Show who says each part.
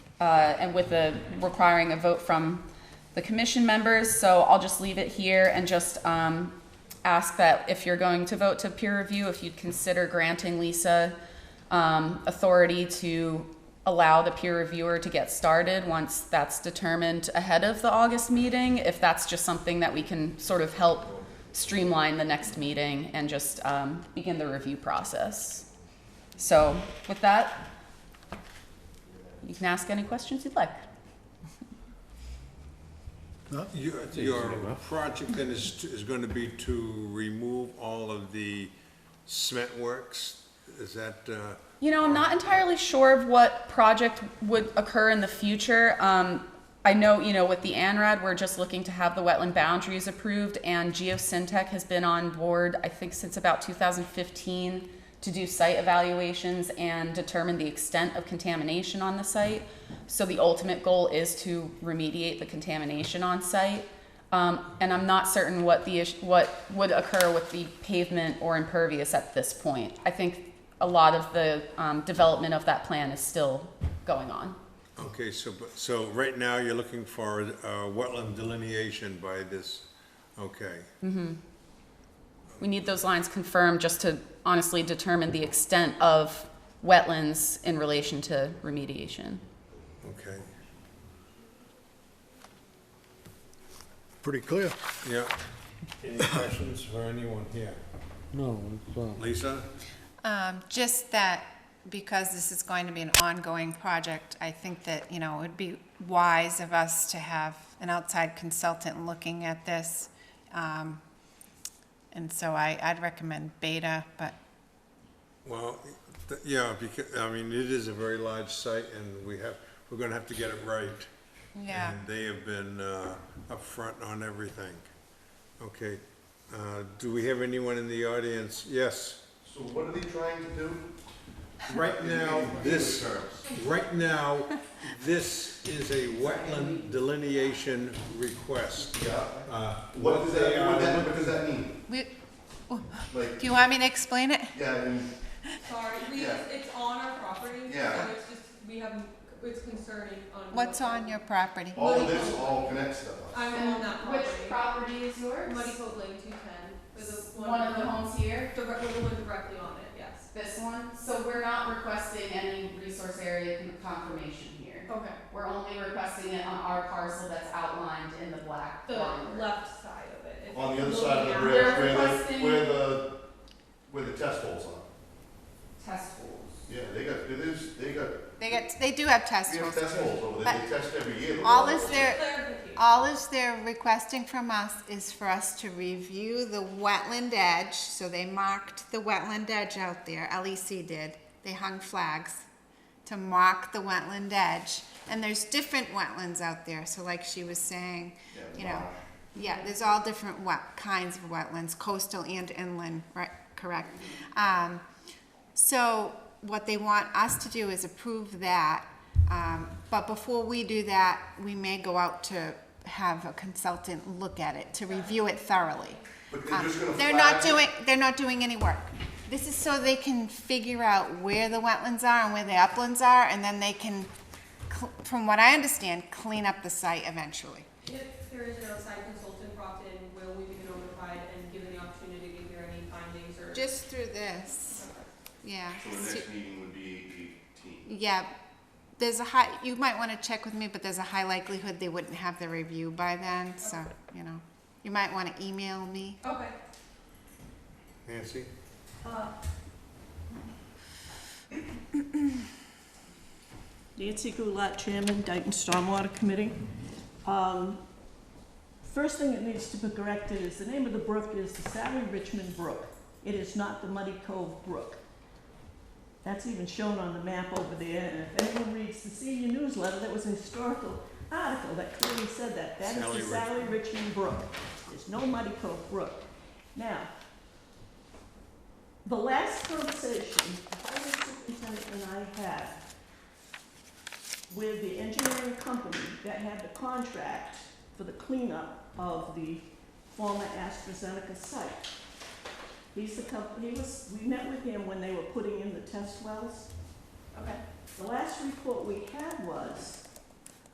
Speaker 1: uh, and with the requiring a vote from the commission members. So I'll just leave it here and just um, ask that if you're going to vote to peer review, if you'd consider granting Lisa um, authority to allow the peer reviewer to get started once that's determined ahead of the August meeting, if that's just something that we can sort of help streamline the next meeting and just um, begin the review process. So with that, you can ask any questions you'd like.
Speaker 2: Your, your project then is, to- is going to be to remove all of the cement works? Is that, uh,
Speaker 1: You know, I'm not entirely sure of what project would occur in the future. Um, I know, you know, with the ANRAD, we're just looking to have the wetland boundaries approved, and GeoSyntech has been on board, I think, since about 2015 to do site evaluations and determine the extent of contamination on the site. So the ultimate goal is to remediate the contamination on site. Um, and I'm not certain what the, ish- what would occur with the pavement or impervious at this point. I think a lot of the um, development of that plan is still going on.
Speaker 2: okay, so, but- so right now you're looking for uh, wetland delineation by this, okay.
Speaker 1: We need those lines confirmed just to honestly determine the extent of wetlands in relation to remediation.
Speaker 2: Okay,
Speaker 3: Pretty clear.
Speaker 2: yeah. Any questions for anyone here?
Speaker 3: No, it's, uh,
Speaker 2: Lisa?
Speaker 4: Um, just that, because this is going to be an ongoing project, I think that, you know, it would be wise of us to have an outside consultant looking at this. Um, and so I, I'd recommend Beta, but
Speaker 2: Well, th- yeah, because, I mean, it is a very large site and we have, we're going to have to get it right.
Speaker 4: yeah,
Speaker 2: And they have been uh, upfront on everything. Okay, uh, do we have anyone in the audience? Yes.
Speaker 5: So what are they trying to do?
Speaker 2: Right now, this, right now, this is a wetland delineation request.
Speaker 5: Yeah.
Speaker 2: Uh,
Speaker 5: What does
Speaker 2: they
Speaker 5: that,
Speaker 2: are
Speaker 5: what that, what does that mean?
Speaker 4: we,
Speaker 5: Like,
Speaker 4: do you want me to explain it?
Speaker 5: yeah, I mean,
Speaker 6: Sorry, we,
Speaker 5: Yeah.
Speaker 6: it's on our property, so
Speaker 5: Yeah.
Speaker 6: it's just, we have, it's concerning on.
Speaker 4: What's on your property?
Speaker 5: all of this all connects to us.
Speaker 6: I'm on that property.
Speaker 7: Which property is yours?
Speaker 6: Muddy Cove Lane two ten, is the one.
Speaker 7: One of the homes here,
Speaker 6: Direct, the one directly on it, yes.
Speaker 7: this one, so we're not requesting any resource area con- confirmation here.
Speaker 6: Okay.
Speaker 7: We're only requesting it on our parcel that's outlined in the black line.
Speaker 6: The left side of it. if
Speaker 5: On the
Speaker 6: you're
Speaker 5: other side of the
Speaker 6: looking at-
Speaker 7: bridge.
Speaker 5: rails, where the,
Speaker 7: requesting-
Speaker 5: where the, where the test holes are.
Speaker 7: Test holes.
Speaker 5: Yeah, they got, it is, they got,
Speaker 4: They get, they do have test
Speaker 5: we have
Speaker 4: holes.
Speaker 5: test holes over there, they test every year. the
Speaker 4: All
Speaker 5: water.
Speaker 4: is there,
Speaker 6: Clarification.
Speaker 4: All is they're requesting from us is for us to review the wetland edge, so they marked the wetland edge out there, LEC did, they hung flags to mark the wetland edge, and there's different wetlands out there, so like she was saying,
Speaker 5: Yeah,
Speaker 4: you know,
Speaker 5: marsh.
Speaker 4: yeah, there's all different wet, kinds of wetlands, coastal and inland, right, correct? Um, so what they want us to do is approve that, um, but before we do that, we may go out to have a consultant look at it, to review it thoroughly.
Speaker 5: But they're
Speaker 4: Um,
Speaker 5: just gonna
Speaker 4: They're not
Speaker 5: flag it?
Speaker 4: doing, they're not doing any work. This is so they can figure out where the wetlands are and where the uplands are, and then they can, cl- from what I understand, clean up the site eventually.
Speaker 6: If there is an outside consultant brought in, will we be notified and given the opportunity to hear any findings or?
Speaker 4: Just through this, yeah.
Speaker 5: So the next meeting would be eighteen.
Speaker 4: Yeah, there's a high, you might want to check with me, but there's a high likelihood they wouldn't have the review by then, so, you know. You might want to email me.
Speaker 6: Okay.
Speaker 2: Nancy?
Speaker 6: Uh,
Speaker 8: Nancy Goulet, Chairman, Dayton Stormwater Committee. Um, First thing that needs to be corrected is the name of the brook is the Sally Richmond Brook. It is not the Muddy Cove Brook. That's even shown on the map over there, and if anyone reads the senior newsletter, there was a historical article that clearly said that. That is
Speaker 2: Sally
Speaker 8: the Sally Richmond Brook. There's no Muddy Cove Brook. Now, the last conversation the highway superintendent and I had with the engineering company that had the contract for the cleanup of the former AstraZeneca site. He's the company, he was, we met with him when they were putting in the test wells.
Speaker 6: okay.
Speaker 8: The last report we had was